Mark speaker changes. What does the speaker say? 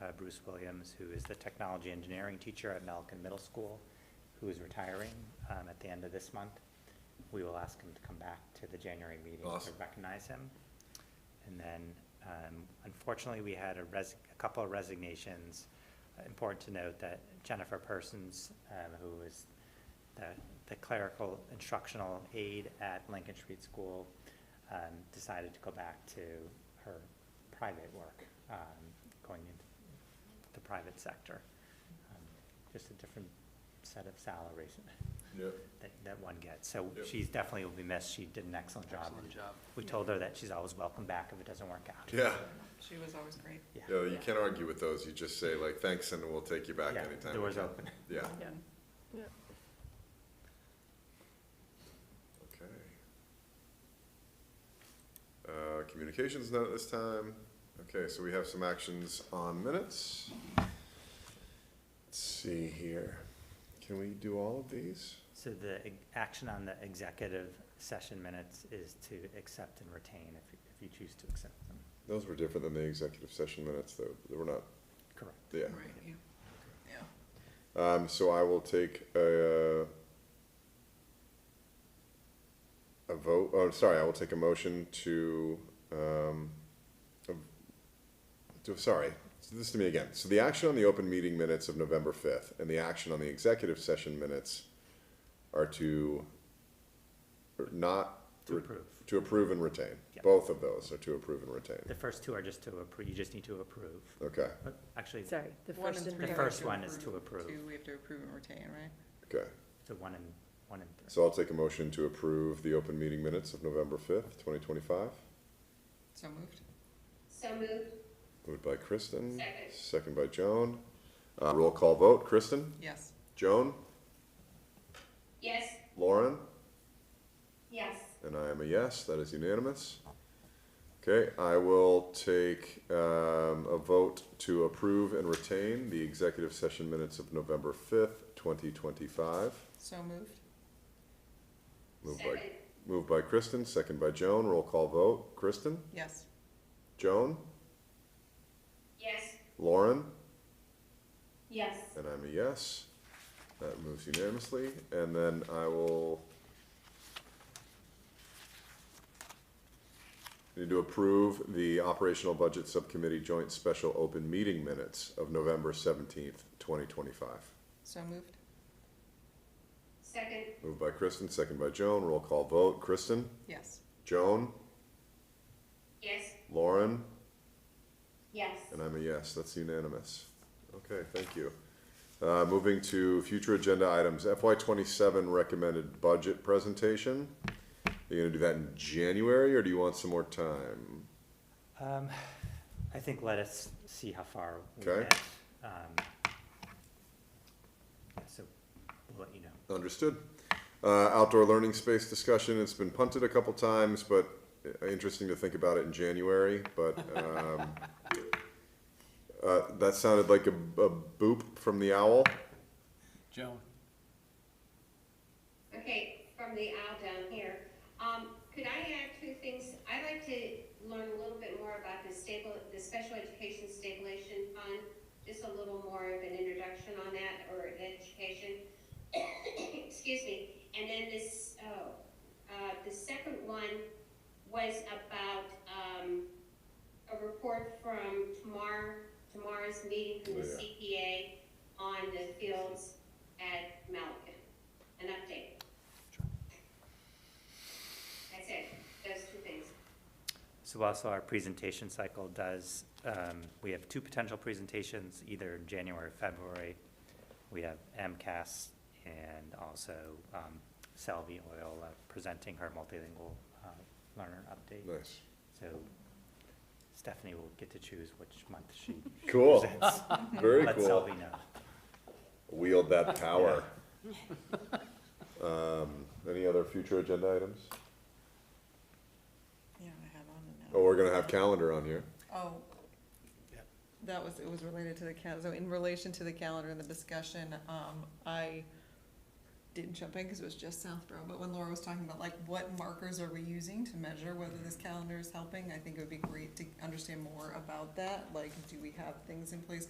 Speaker 1: uh, Bruce Williams, who is the technology engineering teacher at Malkin Middle School, who is retiring um, at the end of this month. We will ask him to come back to the January meeting to
Speaker 2: Awesome.
Speaker 1: recognize him. And then, um, unfortunately, we had a res, a couple of resignations. Important to note that Jennifer Persons, um, who is the the clerical instructional aide at Lincoln Street School, um, decided to go back to her private work, um, going into the private sector. Um, Just a different set of salaries
Speaker 2: Yep.
Speaker 1: that, that one gets. So
Speaker 2: Yep.
Speaker 1: she's definitely will be missed. She did an excellent job.
Speaker 3: Excellent job.
Speaker 1: We told her that she's always welcome back if it doesn't work out.
Speaker 2: Yeah,
Speaker 4: She was always great.
Speaker 1: Yeah.
Speaker 2: yeah, you can't argue with those, you just say like, thanks, and we'll take you back
Speaker 1: Yeah,
Speaker 2: anytime. we
Speaker 1: Doors
Speaker 2: can."
Speaker 1: open.
Speaker 2: Yeah,
Speaker 1: Yeah.
Speaker 2: okay. Uh, communications note this time, okay, so we have some actions on minutes. Let's see here, can we do all of these?
Speaker 1: So the e- action on the executive session minutes is to accept and retain if, you- if you choose to accept them.
Speaker 2: Those were different than the executive session minutes, though, they were not,
Speaker 1: Correct.
Speaker 2: yeah.
Speaker 4: Right, yeah. Yeah.
Speaker 2: Um, so I will take a, uh, a vote, oh, sorry, I will take a motion to, um, of- to, sorry, this to me again. So the action on the open meeting minutes of November fifth and the action on the executive session minutes are to or not.
Speaker 1: To approve.
Speaker 2: To approve and retain.
Speaker 1: Yeah.
Speaker 2: Both of those are to approve and retain.
Speaker 1: The first two are just to approve, you just need to approve.
Speaker 2: Okay,
Speaker 1: But Actually,
Speaker 5: Sorry, the
Speaker 4: One
Speaker 5: first
Speaker 4: and
Speaker 5: and
Speaker 4: three
Speaker 1: the
Speaker 4: we
Speaker 5: third.
Speaker 4: have
Speaker 1: first one is to approve.
Speaker 4: Two, we have to approve and retain, right?
Speaker 2: okay.
Speaker 1: the one and, one and three.
Speaker 2: So I'll take a motion to approve the open meeting minutes of November fifth, twenty twenty-five.
Speaker 4: So moved?
Speaker 6: So moved,
Speaker 2: Moved by Kristen,
Speaker 6: Second.
Speaker 2: second by Joan. Uh, roll call vote, Kristen,
Speaker 4: Yes.
Speaker 2: Joan,
Speaker 6: yes?
Speaker 2: Lauren,
Speaker 6: Yes.
Speaker 2: and I am a yes, that is unanimous. Okay, I will take, um, a vote to approve and retain the executive session minutes of November fifth, twenty twenty-five.
Speaker 4: So moved?
Speaker 2: Moved by,
Speaker 6: Second.
Speaker 2: moved by Kristen, second by Joan, roll call vote, Kristen,
Speaker 4: Yes.
Speaker 2: Joan,
Speaker 6: Yes.
Speaker 2: Lauren,
Speaker 6: Yes.
Speaker 2: And I'm a yes. That moves unanimously, and then I will. Need to approve the operational budget subcommittee joint special open meeting minutes of November seventeenth, twenty twenty-five.
Speaker 4: So moved?
Speaker 6: Second.
Speaker 2: Moved by Kristen, second by Joan, roll call vote, Kristen,
Speaker 4: Yes.
Speaker 2: Joan,
Speaker 6: Yes.
Speaker 2: Lauren,
Speaker 6: Yes.
Speaker 2: and I'm a yes, that's unanimous. Okay, thank you. Uh, moving to future agenda items, FY twenty-seven recommended budget presentation. Are you gonna do that in January, or do you want some more time?
Speaker 1: Um, I think let us see how far we
Speaker 2: Okay.
Speaker 1: get. Um, yeah, So we'll let you know.
Speaker 2: Understood. Uh, outdoor learning space discussion, it's been punted a couple times, but uh, interesting to think about it in January, but, um, uh, that sounded like a, a boop from the owl.
Speaker 3: Joan?
Speaker 6: Okay, from the aisle down here. Um, could I add two things? I'd like to learn a little bit more about the stable, the special education stabilization fund. Just a little more of an introduction on that or an education. Excuse me. And then this, oh, uh, the second one was about, um, a report from tomorrow, tomorrow's meeting from the
Speaker 2: Oh,
Speaker 6: CPA on the fields at Malacan. An update. That's it, those two things.
Speaker 1: So also our presentation cycle does, um, we have two potential presentations, either in January or February. We have MCAS and also um, Salvi Oil uh, presenting her multilingual uh, learner update.
Speaker 2: Nice.
Speaker 1: So Stephanie will get to choose which month she
Speaker 2: Cool,
Speaker 1: presents.
Speaker 2: very
Speaker 1: Let Selby know.
Speaker 2: wield that power. Um, any other future agenda items?
Speaker 4: Yeah, I have on it
Speaker 2: Oh,
Speaker 4: now.
Speaker 2: we're gonna have calendar on here.
Speaker 4: Oh. That was, it was related to the cal, so in relation to the calendar and the discussion, um, I didn't jump in because it was just Southborough, but when Laura was talking about like what markers are we using to measure whether this calendar is helping, I think it would be great to understand more about that, like, do we have things in place?